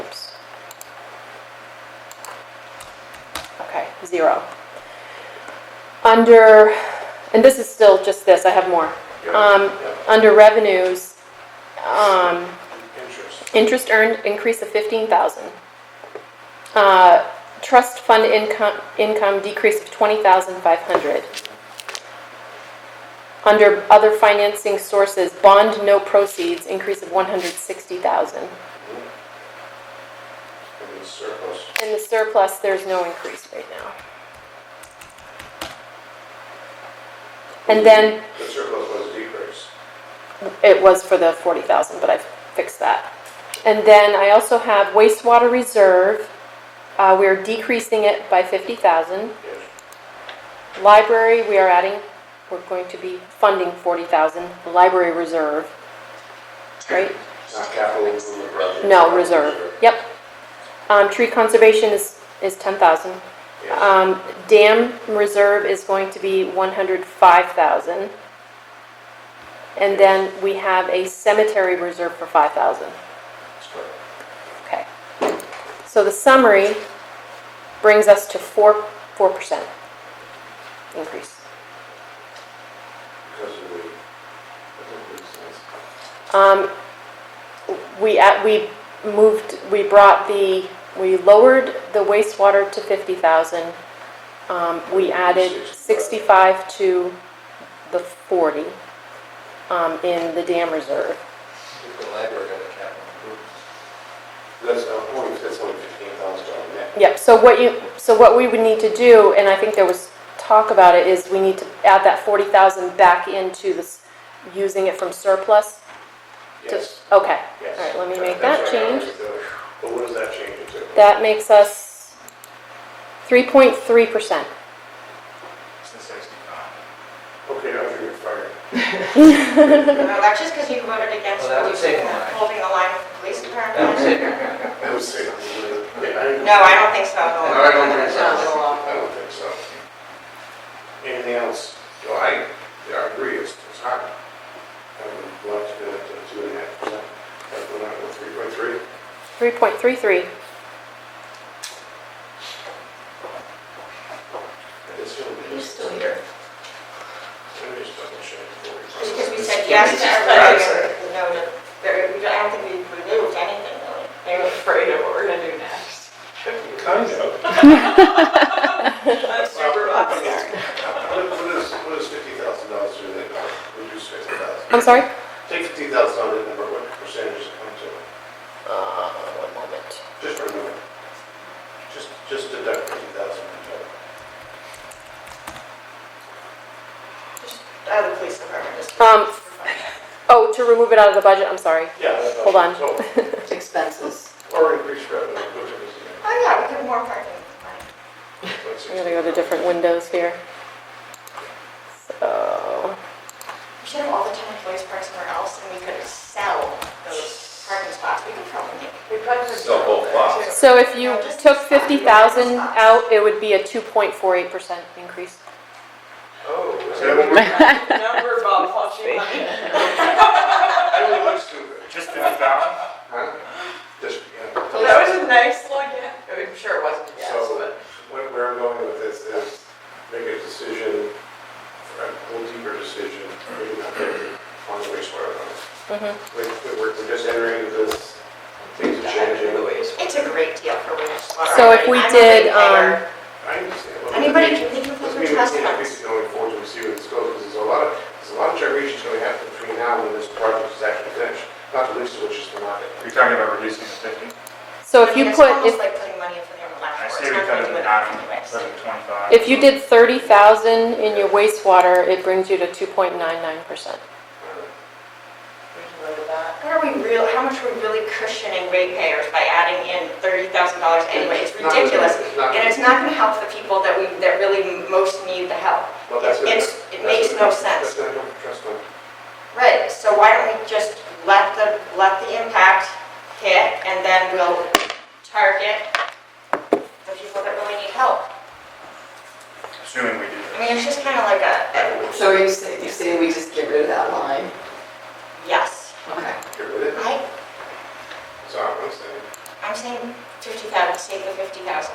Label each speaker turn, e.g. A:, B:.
A: zero. Under, and this is still just this, I have more.
B: Uh,
A: Um, Under revenues, um,
B: Interest.
A: interest earned increase of 15,000. Uh, Trust fund income, income decrease of 20,500. Under other financing sources, bond no proceeds increase of 160,000.
B: And the surplus.
A: In the surplus, there's no increase right now. And then,
B: The surplus was decreased.
A: it was for the 40,000, but I fixed that. And then I also have wastewater reserve, uh, we're decreasing it by 50,000.
B: Yes.
A: Library, we are adding, we're going to be funding 40,000, library reserve, right?
B: Not capital improvement project.
A: No, reserve, yep. Um, Tree conservation is, is 10,000.
B: Yes.
A: Um, dam reserve is going to be one hundred five thousand. And then we have a cemetery reserve for five thousand.
B: That's correct.
A: Okay. So the summary brings us to four, four percent increase.
B: Because of the, that makes sense.
A: Um, we, at- we moved, we brought the, we lowered the wastewater to 50,000. Um, we added 65 to the 40, um, in the dam reserve.
C: The library got a capital improvement.
B: That's uh, only, that's only fifteen thousand dollars net.
A: Yep, so what you, so what we would need to do, and I think there was talk about it, is we need to add that 40,000 back into this, using it from surplus? to-
B: Yes,
A: Okay,
B: yes.
A: all right, let me make that
B: That's right,
A: change.
B: was the- But what does that change it to?
A: That makes us 3.3%.
C: It's the sixty-five.
B: Okay, I figured fire.
D: No, that's just because you voted against
C: Well, that would save
D: reducing the-
C: money.
D: holding the line with the police
C: That was
D: department.
C: it.
B: I would say, yeah, I didn't.
D: No, I don't think so.
C: No, I don't think so.
D: Oh,
B: I don't think so. Anything else? Well, I, yeah, I agree, it's, it's high. I would like to go up to two and a half percent, that's the number, three point three.
A: 3.33.
B: It's still,
D: He's
B: it's,
D: still here.
B: I'm just double checking.
D: Because we said yes to everything and no to, there- we don't- I don't think we removed anything really. They were afraid of what we're gonna do next.
B: Kind of.
D: I'm super upset.
B: What what is, what is fifty thousand dollars to that number? Reduce fifty thousand.
A: I'm sorry?
B: Take fifty thousand out of that number, what percentage does it come to?
A: Uh, one moment.
B: Just remove it. Just, just deduct fifty thousand from total.
D: Just Out of the police department, just.
A: Um, Oh, to remove it out of the budget, I'm sorry.
B: Yeah. that's-
A: Hold on.
B: total.
E: expenses.
B: Or increase revenue, whichever is the.
D: Oh, yeah, we could have more parking.
A: I'm gonna go to different windows here. So,
D: We should have all the town employees parked somewhere else and we could sell those parking spots. We could probably make. We probably could.
C: Sell both lots.
A: so if you took fifty thousand out, it would be a two point four eight percent increase.
B: Is that what we're-
D: Number of
B: I really look stupid.
C: Just fifty thousand?
B: Huh? Just, yeah.
D: That was a nice look, I'm sure it wasn't
B: So what- where I'm going with this is make a decision, a little deeper decision, maybe not there, on the wastewater.
A: Mhm.
B: We- we- We're we're just entering into this, things are changing.
D: It's a great deal for wastewater.
A: So if we
D: I'm a
A: did, um,
D: big payer.
B: I understand. well,
D: Anybody can think of
B: Doesn't
D: a
B: mean we
D: trust
B: can't
D: fund.
B: fix it going forward and see where this goes, because there's a lot of, there's a lot of gyrations going to happen between now and when this project is actually finished, not the least of which is the market.
F: You're talking about reducing the fifty,
A: So if
D: I
A: you
D: mean,
A: put,
D: It's almost
A: if,
D: like putting money in for the
F: I
D: electric.
F: say we cut it in half, instead of twenty-five.
A: if you did thirty thousand in your wastewater, it brings you to two point nine nine percent.
B: Uh,
D: What are we real, how much are we really cushioning ratepayers by adding in thirty thousand dollars anyway? It's
B: Not really,
D: ridiculous.
B: it's not-
D: And it's not gonna help the people that we, that really most need the help.
B: Well, that's gonna-
D: It's,
B: that's
D: it makes
B: gonna-
D: no sense.
B: That's not going to trust fund.
D: Right, so why don't we just let the, let the impact hit and then we'll target the people that really need help?
F: Assuming we do
D: I
F: this.
D: mean, it's just kind of like a,
E: So are you saying, you're saying we just get rid of that line?
D: yes.
E: Okay.
B: Get rid of it.
D: I,
B: So I'm saying.
D: I'm saying fifty thousand, save the fifty thousand.